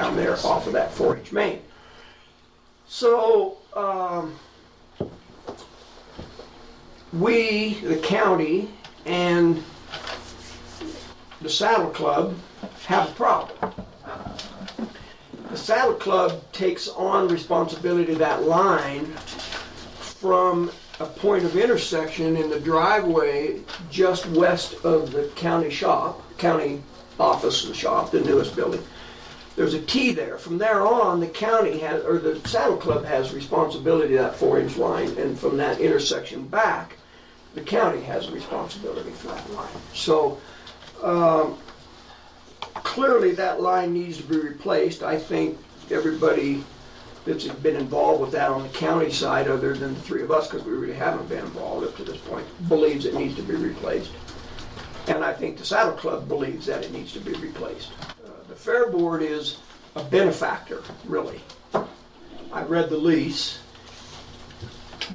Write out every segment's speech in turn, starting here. down there off of that 4-H main. So, um, we, the county, and the Saddle Club have a problem. The Saddle Club takes on responsibility of that line from a point of intersection in the driveway just west of the county shop, county office and shop, the newest building. There's a T there. From there on, the county has, or the Saddle Club has responsibility of that four-inch line, and from that intersection back, the county has responsibility for that line. So, um, clearly that line needs to be replaced. I think everybody that's been involved with that on the county side, other than the three of us, because we really haven't been involved up to this point, believes it needs to be replaced. And I think the Saddle Club believes that it needs to be replaced. Uh, The Fair Board is a benefactor, really. I read the lease.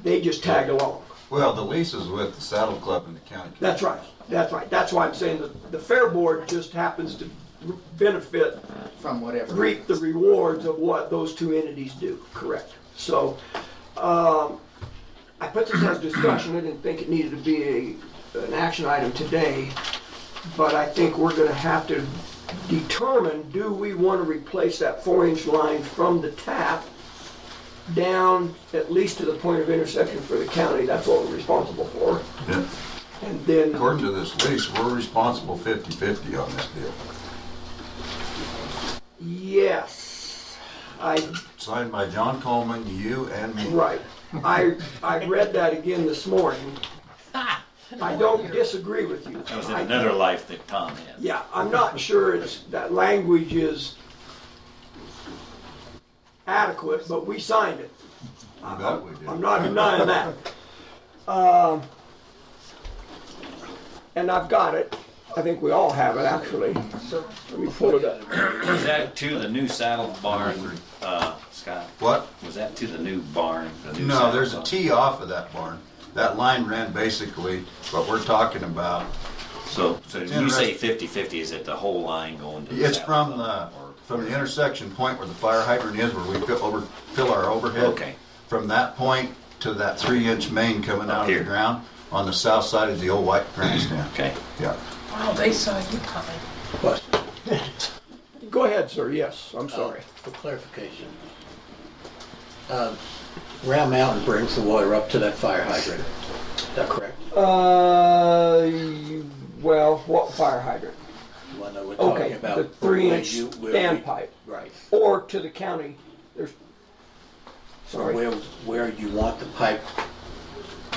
They just tag along. Well, the lease is with the Saddle Club and the county. That's right, that's right. That's why I'm saying that the Fair Board just happens to benefit from whatever. reap the rewards of what those two entities do, correct? So, um, I put this as discussion, I didn't think it needed to be a, an action item today, but I think we're gonna have to determine, do we wanna replace that four-inch line from the tap down at least to the point of intersection for the county, that's what we're responsible for, Yeah. and then. According to this lease, we're responsible 50/50 on this deal. Yes, I Signed by John Coleman, you and me. Right. I, I read that again this morning. I don't disagree with you. That was in another life that Tom had. Yeah, I'm not sure it's, that language is adequate, but we signed it. You bet we did. I'm not denying that. Um, And I've got it. I think we all have it, actually. Let me pull it up. Was that to the new saddle barn, uh, Scott? What? Was that to the new barn? the new No, saddle there's a barn? tee off of that barn. That line ran basically what we're talking about. So, so when you say fifty-fifty, is it the whole line going to? the It's saddle from the, barn or- from the intersection point where the fire hydrant is, where we fill over, fill our overhead. Okay. From that point to that three-inch main coming Up out of the here. ground on the south side of the old white grandstand. Okay, Yeah. Wow, they saw you coming. Go ahead, sir. Yes, I'm sorry. For clarification, uh, Round Mountain brings the water up to that fire hydrant. Is that correct? Uh, well, what fire hydrant? The one that we're Okay, talking about. the three-inch where you- where we- standpipe, Right. or to the county, there's, sorry, Where, where you want the pipe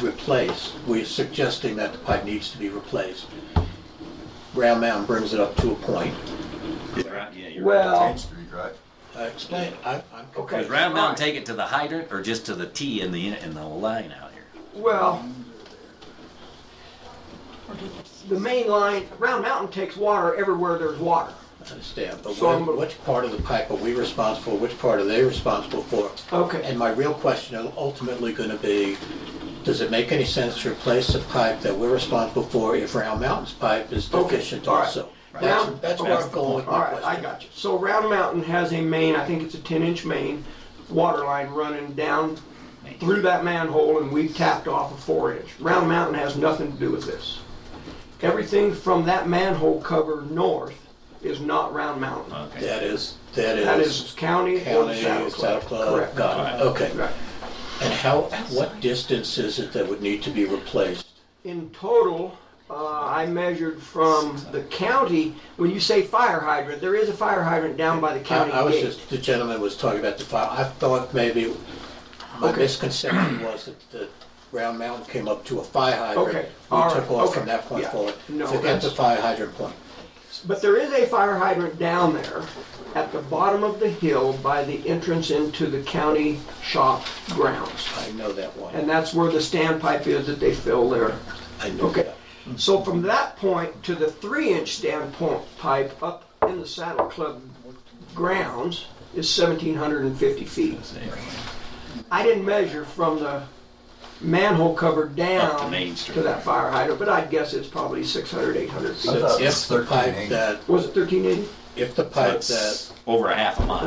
replaced. We're suggesting that the pipe needs to be replaced. Round Mountain brings it up to a point. You're right, yeah, you're right. well, Main Street, right? Uh, Explain, I- I'm. Okay. Does Round Mountain take it to the hydrant or just to the T in the, in the line out here? well, the main line, Round Mountain takes water everywhere there's water. I understand, but So what- I'm gonna- which part of the pipe are we responsible, which part are they responsible for? Okay. And my real question is ultimately gonna be, does it make any sense to replace the pipe that we're responsible for if Round Mountain's pipe is Okay, deficient all right. also? Right. That's, Now- that's where that's I'm the going with All my right, question. I got you. So Round Mountain has a main, I think it's a ten-inch main, water line running down through that manhole, and we've tapped off a four-inch. Round Mountain has nothing to do with this. Everything from that manhole cover north is not Round Mountain. Okay, That is, that is. That is county or the Uh, County, Saddle Club. Saddle Club, Correct. got it, okay. Right. And how, what distance is it that would need to be replaced? In total, uh, I measured from the county, when you say fire hydrant, there is a fire hydrant down by the I county I was gate. just, the gentleman was talking about the fire, I thought maybe, my Okay. misconception was that the Round Mountain came up to a fire hydrant. Okay, We all right, took off okay, from that point yeah. forward. No, Forget that's- the fire hydrant point. But there is a fire hydrant down there at the bottom of the hill by the entrance into the county shop grounds. I know that And one. that's where the standpipe is that they fill there. I know Okay. that. So from that point to the three-inch standpoint pipe up in the Saddle Club grounds is 1,750 feet. I didn't measure from the manhole cover Up to down Main to Street. that fire hydrant, but I'd guess it's probably 600, 800 feet. I thought it was If the 13 pipe acres. that, Was it 1380? if the pipe that that's over a half a mile.